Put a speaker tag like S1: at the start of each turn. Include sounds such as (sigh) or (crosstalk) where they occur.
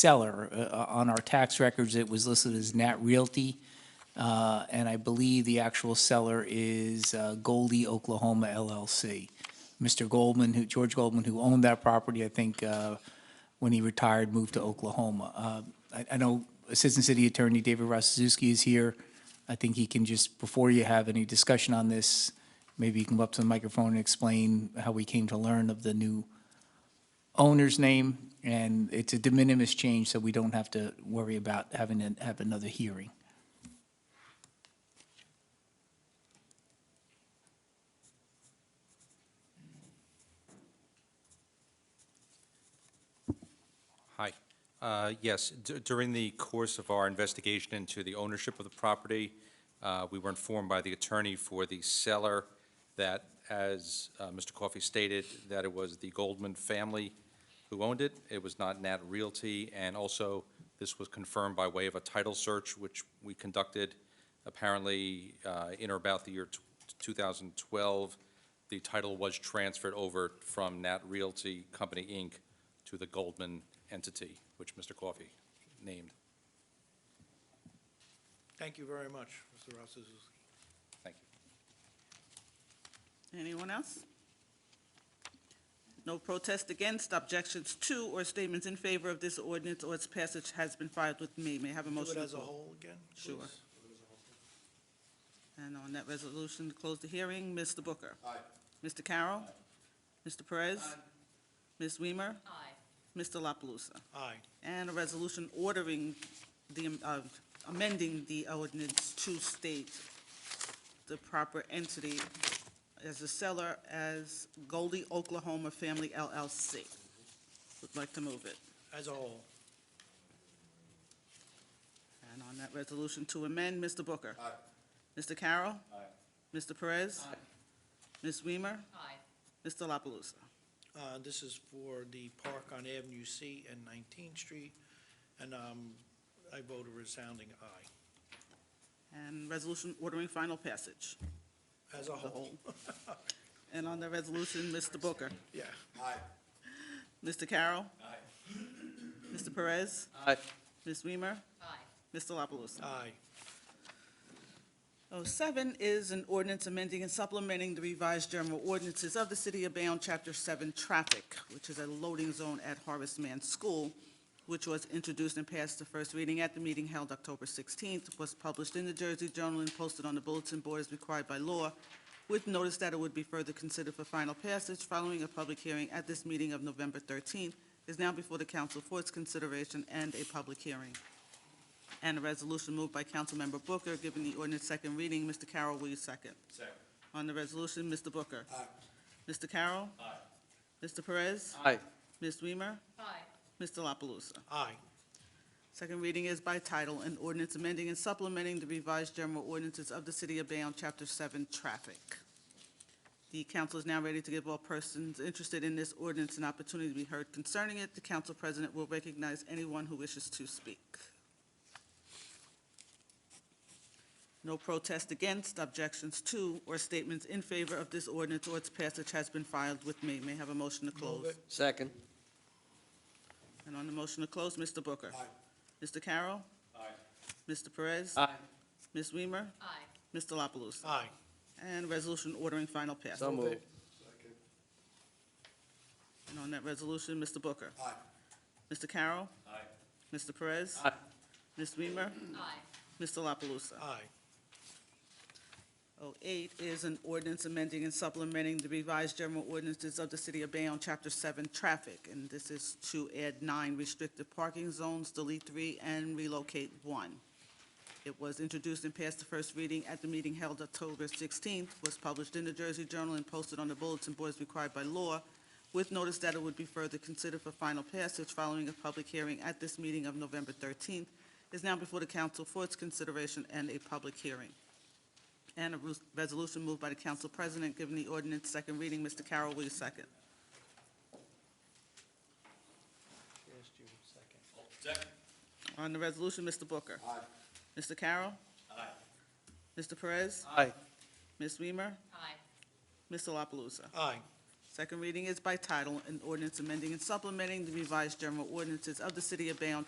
S1: seller. Uh, On our tax records, it was listed as Nat Realty, uh, and I believe the actual seller is uh, Goldie Oklahoma LLC. Mr. Goldman, who, George Goldman, who owned that property, I think, uh, when he retired, moved to Oklahoma. Uh, I I know Assistant City Attorney David Rosazuski is here. I think he can just, before you have any discussion on this, maybe you can go up to the microphone and explain how we came to learn of the new owner's name, and it's a de minimis change, so we don't have to worry about having to have another hearing.
S2: Hi. Uh, Yes, d- during the course of our investigation into the ownership of the property, uh, we were informed by the attorney for the seller that, as uh, Mr. Coffey stated, that it was the Goldman family who owned it. It was not Nat Realty, and also, this was confirmed by way of a title search, which we conducted apparently uh, in or about the year t- 2012. The title was transferred over from Nat Realty Company, Inc., to the Goldman entity, which Mr. Coffey named.
S3: Thank you very much, Mr. Rosazuski.
S2: Thank you.
S4: Anyone else? No protest against, objections to, or statements in favor of this ordinance or its passage has been filed with me. May I have a
S3: Do
S4: motion?
S3: it
S4: to
S3: as a
S4: close?
S3: whole again?
S4: Sure.
S3: please?
S4: And on that resolution, to close the hearing. Mr. Booker? Aye. Mr. Carroll? Mr. Perez? Ms. Weimer? Aye. Mr. La Palusa?
S3: Aye.
S4: And a resolution ordering the, uh, amending the ordinance to state the proper entity as a seller as Goldie Oklahoma Family LLC. Would like to move it.
S3: As a whole.
S4: And on that resolution to amend, Mr. Booker? Aye. Mr. Carroll? Aye. Mr. Perez? Aye. Ms. Weimer? Aye. Mr. La Palusa?
S3: Uh, This is for the park on Avenue C and 19th Street, and um, I vote a resounding aye.
S4: And resolution ordering final (laughs) passage.
S3: As a whole.
S4: And on the resolution, Mr. Booker?
S3: (laughs) Yeah.
S4: Mr. Carroll? Aye. Mr. Perez?
S2: Aye.
S4: Ms. Weimer? Aye. Mr. La Palusa?
S3: Aye.
S4: Oh, seven is an ordinance amending and supplementing the revised general ordinances of the City of Bayonne, Chapter Seven, Traffic, which is a loading zone at Harvest Man School, which was introduced and passed the first reading at the meeting held October sixteenth, was published in the Jersey Journal and posted on the bulletin board as required by law, with notice that it would be further considered for final passage following a public hearing at this meeting of November thirteenth, is now before the council for its consideration and a public hearing. And a resolution moved by Councilmember Booker, giving the ordinance second reading. Mr. Carroll, will you second?
S2: Second.
S4: On the resolution, Mr. Booker? Aye. Mr. Carroll? Aye. Mr. Perez?
S2: Aye.
S4: Ms. Weimer? Aye. Mr. La Palusa?
S3: Aye.
S4: Second reading is by title, an ordinance amending and supplementing the revised general ordinances of the City of Bayonne, Chapter 7, Traffic. The council is now ready to give all persons interested in this ordinance an opportunity to be heard concerning it. The council president will recognize anyone who wishes to speak. No protest against, objections to, or statements in favor of this ordinance or its passage has been filed with me. May I have a motion to close?
S3: it.
S5: Second.
S4: And on the motion to close, Mr. Booker? Aye. Mr. Carroll? Aye. Mr. Perez?
S5: Aye.
S4: Ms. Weimer? Aye. Mr. La Palusa?
S3: Aye.
S4: And resolution ordering final passage.
S5: So moved.
S4: And on that resolution, Mr. Booker? Aye. Mr. Carroll? Aye. Mr. Perez?
S5: Aye.
S4: Ms. Weimer? Aye. Mr. La Palusa?
S3: Aye.
S4: 08 is an ordinance amending and supplementing the revised general ordinances of the City of Bayonne, Chapter 7, Traffic, and this is to add nine restricted parking zones, delete three, and relocate one. It was introduced and passed the first reading at the meeting held October 16th, was published in the Jersey Journal and posted on the bulletin boards required by law, with notice that it would be further considered for final passage following a public hearing at this meeting of November 13th, is now before the council for its consideration and a public hearing. And a res- resolution moved by the council president giving the ordinance second reading. Mr. Carroll, will you second? On the resolution, Mr. Booker. Aye. Mr. Carroll. Aye. Mr. Perez.
S5: Aye.
S4: Ms. Weimer. Aye. Mr. La Palusa.
S3: Aye.
S4: Second reading is by title, an ordinance amending and supplementing the revised general ordinances of the city of Bayonne,